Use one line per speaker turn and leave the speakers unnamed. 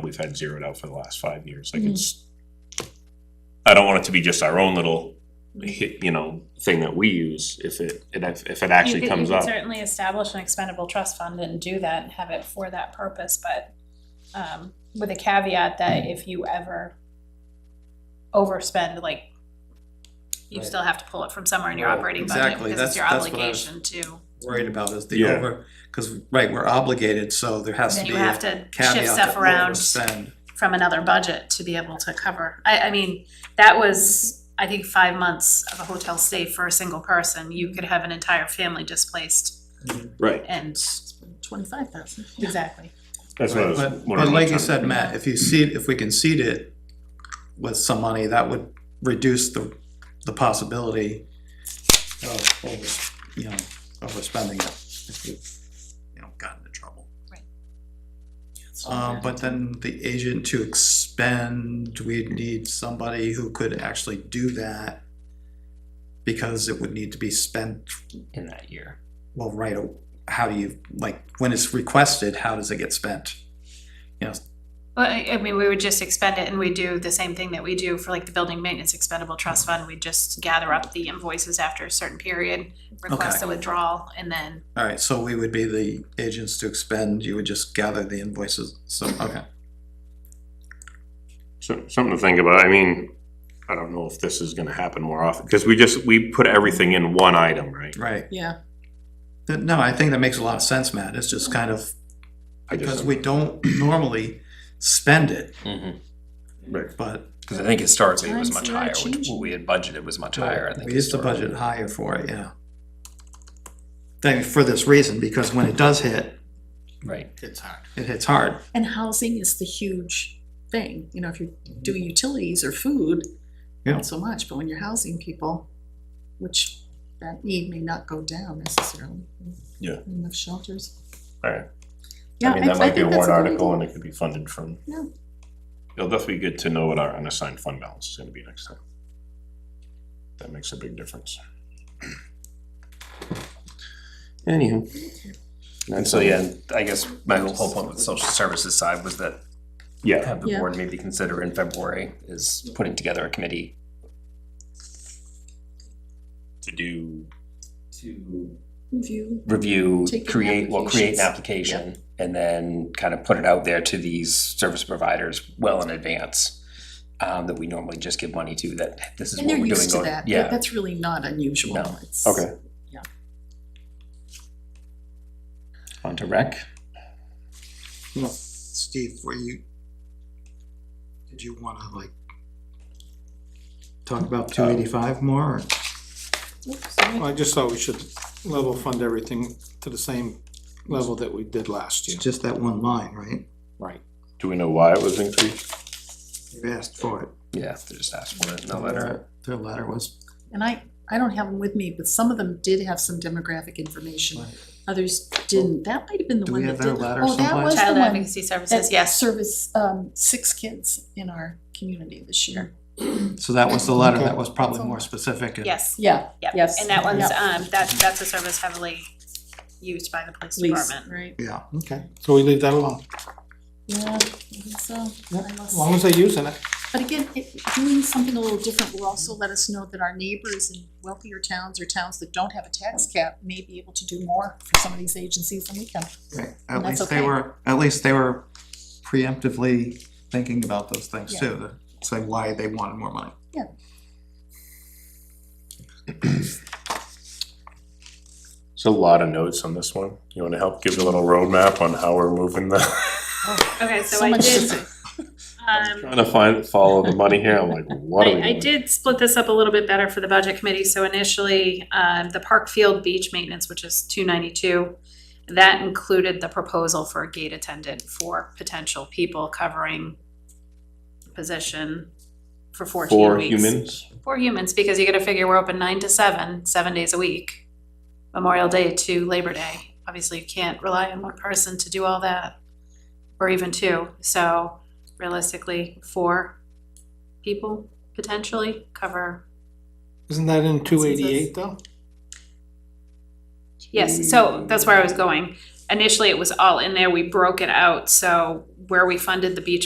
we've had zeroed out for the last five years,
Mm-hmm.
like it's. I don't want it to be just our own little, hi- you know, thing that we use, if it, it ac- if it
You
actually
could-
comes
You could
up.
certainly establish an expendable trust fund and do that and have it for that purpose, but um, with a caveat that if you ever overspend, like, you
Right.
still have to pull it from somewhere in your
Right,
operating budget,
exactly.
because it's
That's-
your
that's what I was-
obligation to,
worried about is the
Yeah.
over, because, right, we're obligated, so there has to
then
be
you have
a
to shift
caveat
stuff
to
around
overspend.
from another budget to be able to cover. I, I mean, that was, I think, five months of a hotel stay for a single person. You could have an entire family displaced
Right.
and.
Twenty-five thousand.
Exactly.
That's what I was
But,
wondering
but like you
about.
said, Matt, if you seed, if we can seed it with some money, that would reduce the, the possibility of, over, you know, overspending it, if you've, you know, gotten into trouble. Um, but then the agent to expend, we'd need somebody who could actually do that. Because it would need to be spent,
in that year.
well, right, how do you, like, when it's requested, how does it get spent?
Well, I, I mean, we would just expend it and we do the same thing that we do for like the building maintenance expendable trust fund. We just gather up the invoices after a certain period, request
Okay.
the withdrawal and then,
Alright, so we would be the agents to expend, you would just gather the invoices, so, okay.
So, something to think about, I mean, I don't know if this is gonna happen more often, cause we just, we put everything in one item, right?
Right,
Yeah,
Th- no, I think that makes a lot of sense, Matt, it's just kind of,
I just-
because we don't normally spend it,
Because
but.
I think historically it was
Times
much
they are
higher, which
changing.
what we had budgeted was much higher, I think.
We used to budget higher for it, yeah. Then for this reason, because when it does hit,
Right.
It's hard. It hits hard,
and housing is the huge thing, you know, if you're doing utilities or food,
Yeah.
not so much, but when you're housing people, which that need may not go down necessarily.
Yeah.
Enough shelters.
Alright.
Yeah,
I mean, that might be a
think that's
warrant
great
article
idea.
and it could be funded from.
Yeah.
It'll definitely be good to know what our unassigned fund balance is gonna be next time. That makes a big difference. Anywho.
And so, yeah, I guess my whole whole point with the social services side was that
Yeah,
have the
Yeah.
board maybe consider in February is putting together a committee
to do,
to
Review,
review,
Take in
create, well, create
applications.
an application and then kind of put it out there to these service providers well in advance. Um, that we normally just give money to, that this is
and
what
they're
we're doing.
used to
going-
that,
Yeah,
that's really not unusual,
No.
it's.
okay,
onto rec.
Steve, were you, did you wanna like,
talk about two eighty-five more, or-
Oops, sorry.
Um, I just thought we should level fund everything to the same level that we did last
it's
year.
just that one line, right?
Right.
do we know why it was increased?
You asked for it.
Yeah, they just asked for it in the letter.
Their letter was,
And I, I don't have them with me, but some of them did have some demographic information,
Right.
others didn't, that might have been the
Do
one
we
that
have their
did.
letter
Oh, that
someplace?
was the
child
one
advocacy services,
that
yes.
service, um, six kids in our community this year.
Mm-hmm.
so that was the letter that
Okay.
was probably more specific. and-
Yes,
Yeah,
yep.
Yes.
And that one's,
Yeah.
um, that, that's a service heavily used by the police
lease,
department.
right?
Yeah,
Okay, so we leave that alone,
Yeah, I think so,
Yeah,
I
as
must,
long as they're using it.
but again, it, doing something a little different will also let us know that our neighbors in wealthier towns or towns that don't have a tax cap may be able to do more for some of these agencies than we can.
right,
And
at
that's
least they
okay.
were, at least they were preemptively thinking about those things
Yeah.
too, to say why they wanted more money.
It's a lot of notes on this one, you wanna help give a little roadmap on how we're moving the,
Okay, so
So
I
much to
did,
say.
um,
trying to find, follow the money here, I'm like, what are we
I, I
doing?
did split this up a little bit better for the budget committee, so initially, um, the Park Field Beach Maintenance, which is two ninety-two, that included the proposal for a gate attendant for potential people covering position for fourteen
Four
weeks.
humans?
For humans, because you gotta figure we're open nine to seven, seven days a week, Memorial Day to Labor Day. Obviously, you can't rely on one person to do all that, or even two, so realistically, four people potentially cover.
Isn't that in two eighty-eight though?
Yes, so that's where I was going. Initially, it was all in there, we broke it out, so where we funded the beach